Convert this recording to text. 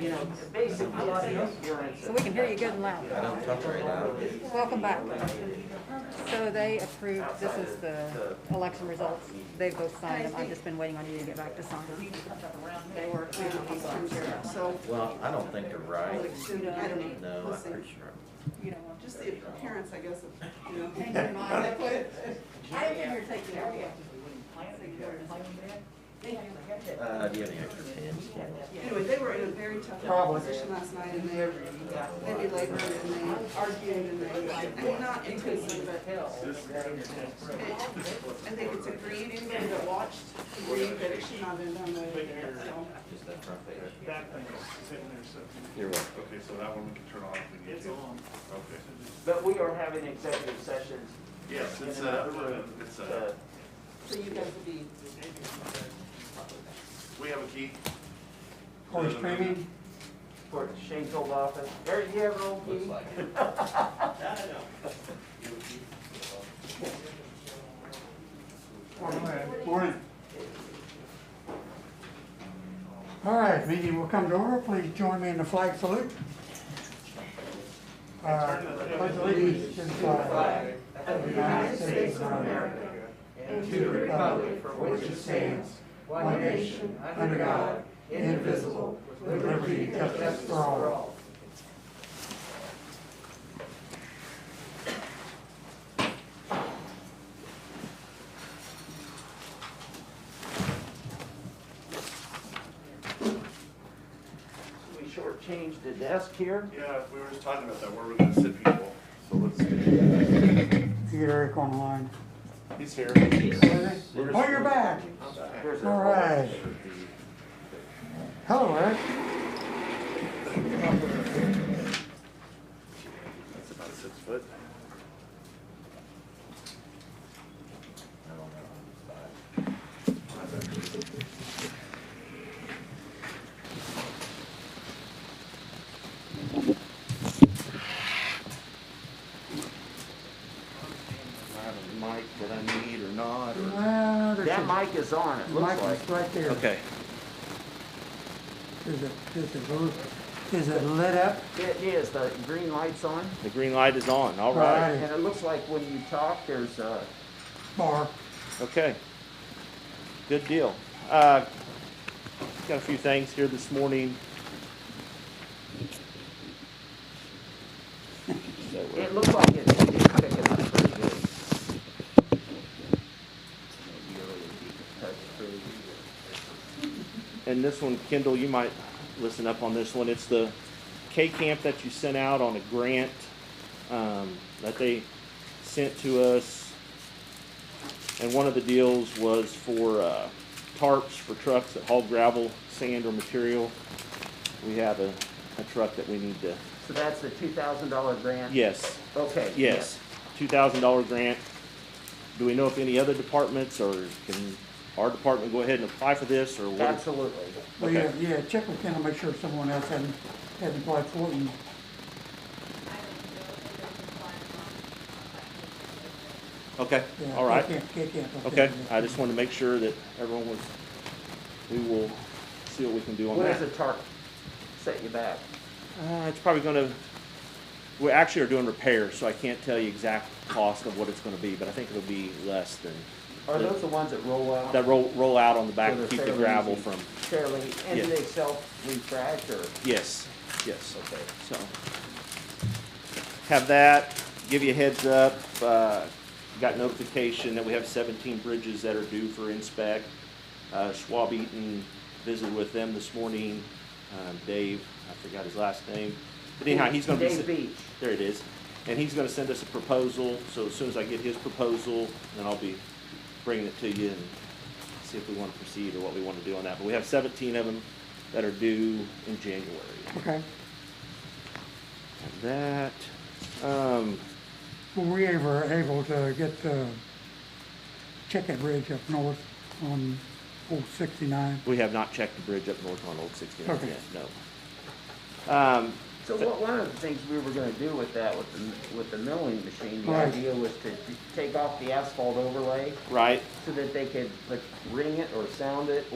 you know, basically, it's insurance. So we can hear you good and I loud. don't talk very loud. Welcome back. So they approved, this is the election results. They both signed them. I've just been waiting on you to get back to sign them. They were approved on Form zero. So, Well, I don't think they're right. I don't know, No, we'll I'm see. pretty sure. Just the appearance, I guess, of, you know. They put it- I didn't hear taking it away. Uh, do you have any extra pens? Anyway, they were in a very tough position last night and they, they belabored and they argued and they, I mean, not intentionally, but I think it's agreed, anybody that watched agreed that it should not have been done that way. So, Just that front page. That thing is sitting there, so You're welcome. Okay, so that one we can turn off if we need it's to. on. Okay. But we are having executive sessions. Yes, it's a, it's uh, a, so you guys will be, we have a key. Police training, For the Shanefield office. Eric, you have an old key? Looks like it. morning. All right, meeting will come to order. Please join me in the flag salute. Uh, Pledge allegiance to the flag of the United States of America and to the republic for which it stands, one nation, under God, indivisible, with liberty and justice for all. We shortchanged the desk here. Yeah, we were just talking about that, where we're gonna sit people, so let's Get Eric on the line. He's here. Oh, you're back. There's a- All right. Hello, Eric. That's about six foot. I don't know. I have a mic that I need or not, or. Well, there's That a- mic is on, it Mike looks like. is right there. Okay. Is it, is it, blue- is it lit up? It is, the green light's on. The green light is on, all right. Alrighty. And it looks like when you talk, there's a, Bar. Okay. Good deal. Uh, Got a few things here this morning. So, uh, it looks like it's it's picking up pretty good. And this one, Kendall, you might listen up on this one. It's the K camp that you sent out on a grant um, that they sent to us. And one of the deals was for uh, tarps for trucks that haul gravel, sand, or material. We have a, a truck that we need to. So that's the two thousand dollar grant? Yes, Okay. yes. Two thousand dollar grant. Do we know if any other departments or can our department go ahead and apply for this or what? is- Absolutely. Well, Okay. yeah, yeah, check with Ken to make sure someone else hasn't, hasn't applied for it. and- Okay, yeah, all right. K Camp, K Camp, I think Okay, it is. I just wanted to make sure that everyone was, we will see what we can do on What does that. the tarp set you back? Uh, it's probably gonna, we actually are doing repairs, so I can't tell you exact cost of what it's gonna be, but I think it'll be less than, Are those the ones that roll out? that roll, roll out on the So back, they're to keep the fairly gravel easy. from, Fairly, and do Yeah. they self-retract or? yes, yes. Okay. So, have that, give you a heads up, uh, got notification that we have seventeen bridges that are due for inspect. Uh, Schwab Eaton visited with them this morning, um, Dave, I forgot his last name, but anyhow, he's gonna be. Dave sit- Beach. There it is, and he's gonna send us a proposal, so as soon as I get his proposal, then I'll be bringing it to you and see if we wanna proceed or what we wanna do on that, but we have seventeen of them that are due in January. Okay, That, um, were we ever able to get the Chicken Bridge up north on old sixty-nine? we have not checked the bridge up north on Old Sixty-Nine Okay. yet, no. Um, So what, one of the things we were gonna do with that, with the, with the milling machine, the Right. idea was to take off the asphalt overlay right, so that they could like ring it or sound it